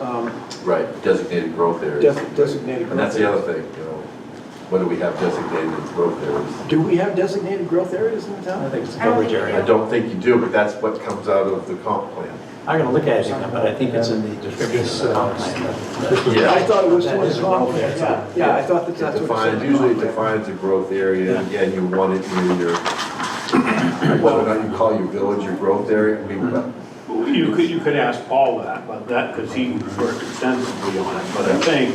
um, Right, designated growth areas. def- designated. And that's the growth other thing, you know, what do we have designated as growth areas? areas. Do we have designated growth areas in the I town? think it's a I don't coverage think I area. don't think you do, but that's what comes out of the comp plan. I'm gonna look at it again, but I think it's in the description of the comp plan. I thought it was That towards is the a comp growth plan, area. yeah, yeah, I thought that It that's what it defines, said. usually it defines a growth area, and again, you want it near your, whether or not you call your village your growth area, I mean, but Well, You could, you could ask Paul that, but that, because he worked extensively on it, but I think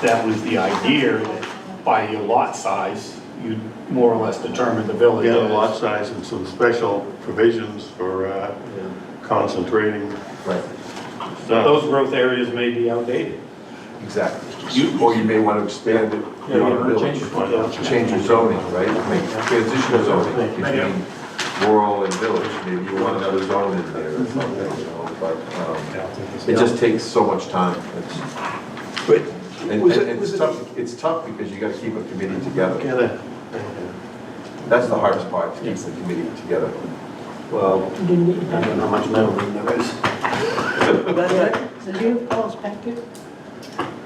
that was the idea, that by your lot size, you more or less determine the village. Yeah, the as- lot size and some special provisions for uh, concentrating. right, Those growth areas may be outdated. exactly. You- Or you may want to expand it Yeah, you beyond wanna village. change it. Change your zoning, right? Make transition zoning between rural and village, maybe you want another zone in there or something, you know, but, um, it just takes so much time. It's- But And, was and it, was it's it, tough, it's tough because you gotta keep a committee together. Together. That's the hardest part, to keep the committee together. Well, I don't know how much metal. So do you have Paul's packet?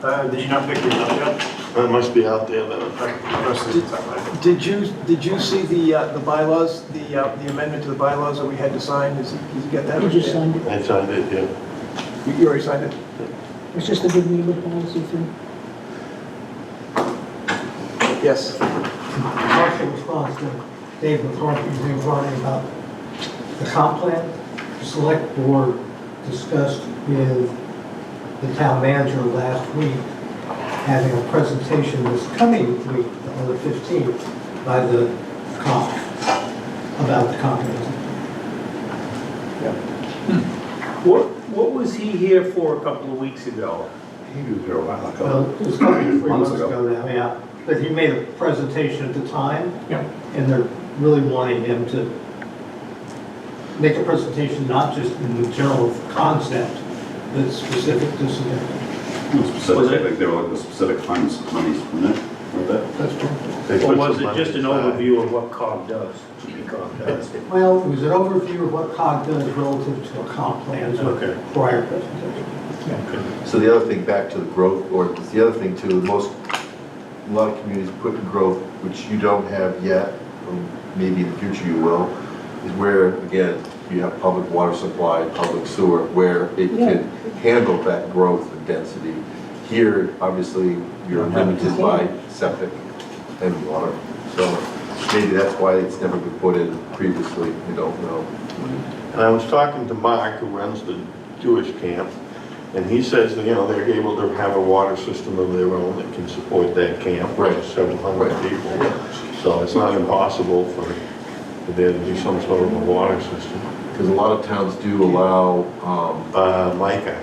Uh, Did you not pick it up yet? That must be out there, though. did you, did you see the, uh, the bylaws, the, uh, the amendment to the bylaws that we had to sign? Is, did you get that? You just signed it. I signed it, yeah. You you already signed it? It's just a good neighbor policy thing. Yes. Partial response to Dave McCarthy's inquiry about the comp plan. The Select board discussed with the town manager last week, having a presentation this coming week, on the 15th, by the comp, about the comp plan. What, what was he here for a couple of weeks ago? He was there a while Well, it was coming three months ago now, yeah. But he made a presentation at the time. Yeah. And they're really wanting him to make a presentation, not just in the general concept, but specific to some. Was it- Specific, like they were looking for specific funds, monies from it, or that? Or was it just an overview of what COG does, what COG does? Well, it was an overview of what COG does relative to a comp plan, so Okay. prior presentation. So the other thing, back to the growth ordinance, the other thing too, most, a lot of communities put in growth, which you don't have yet, or maybe in the future you will, is where, again, you have public water supply, public sewer, where it can handle that growth and density. Here, obviously, you're limited by septic and water, so maybe that's why it's never been put in previously, we don't know. And I was talking to Mark, who runs the Jewish camp, and he says that, you know, they're able to have a water system of their own that can support that camp, which Right. is several hundred Right. people. So it's not impossible for for there to be some sort of a water system. Because a lot of towns do allow, um, Uh, Micah,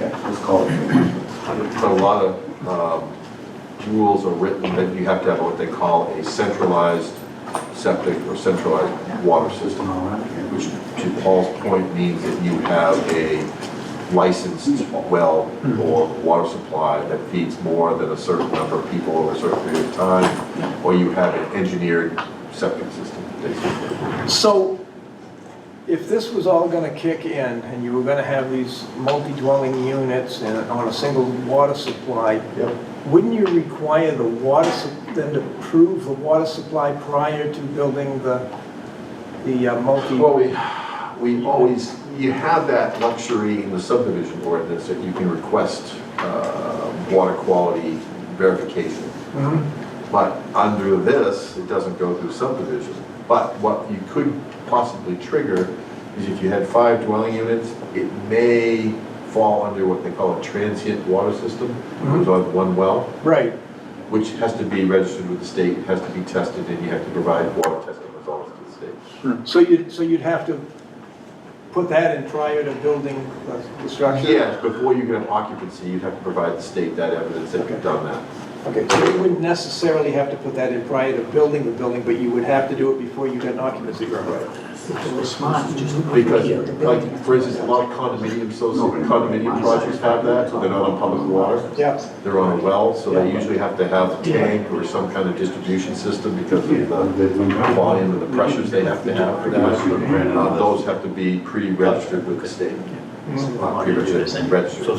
Let's call it. But a lot of um, rules are written that you have to have what they call a centralized septic or centralized water Just system, an all right. which to Paul's point means that you have a licensed well or water supply that feeds more than a certain number of people over a certain period of time, or you have an engineered septic system, basically. So if this was all gonna kick in and you were gonna have these multi-dwelling units and on a single water supply, Yep. wouldn't you require the water, sup- them to prove the water supply prior to building the, the uh, multi? Well, we, we always, you have that luxury in the subdivision ordinance that you can request uh, water quality verification. Mhm. But under this, it doesn't go through subdivision. But what you could possibly trigger is if you had five dwelling units, it may fall under what they call a transient water system, which is on one well, Right, which has to be registered with the state, has to be tested, and you have to provide water testing results to the state. so you'd, so you'd have to put that in prior to building the- the structure? Yes, before you can have occupancy, you'd have to provide the state that evidence that you've done that. Okay, so you wouldn't necessarily have to put that in prior to building the building, but you would have to do it before you get an occupancy permit? Because, like, for instance, a lot of condominium, social condominium projects have that, they're not on public water, Yeah. they're on a well, so they usually have to have a tank or some kind of distribution system because of the volume and the pressures they have to have for that. Uh, Those have to be pre-registered with the state, Uh, pre-registered, registered.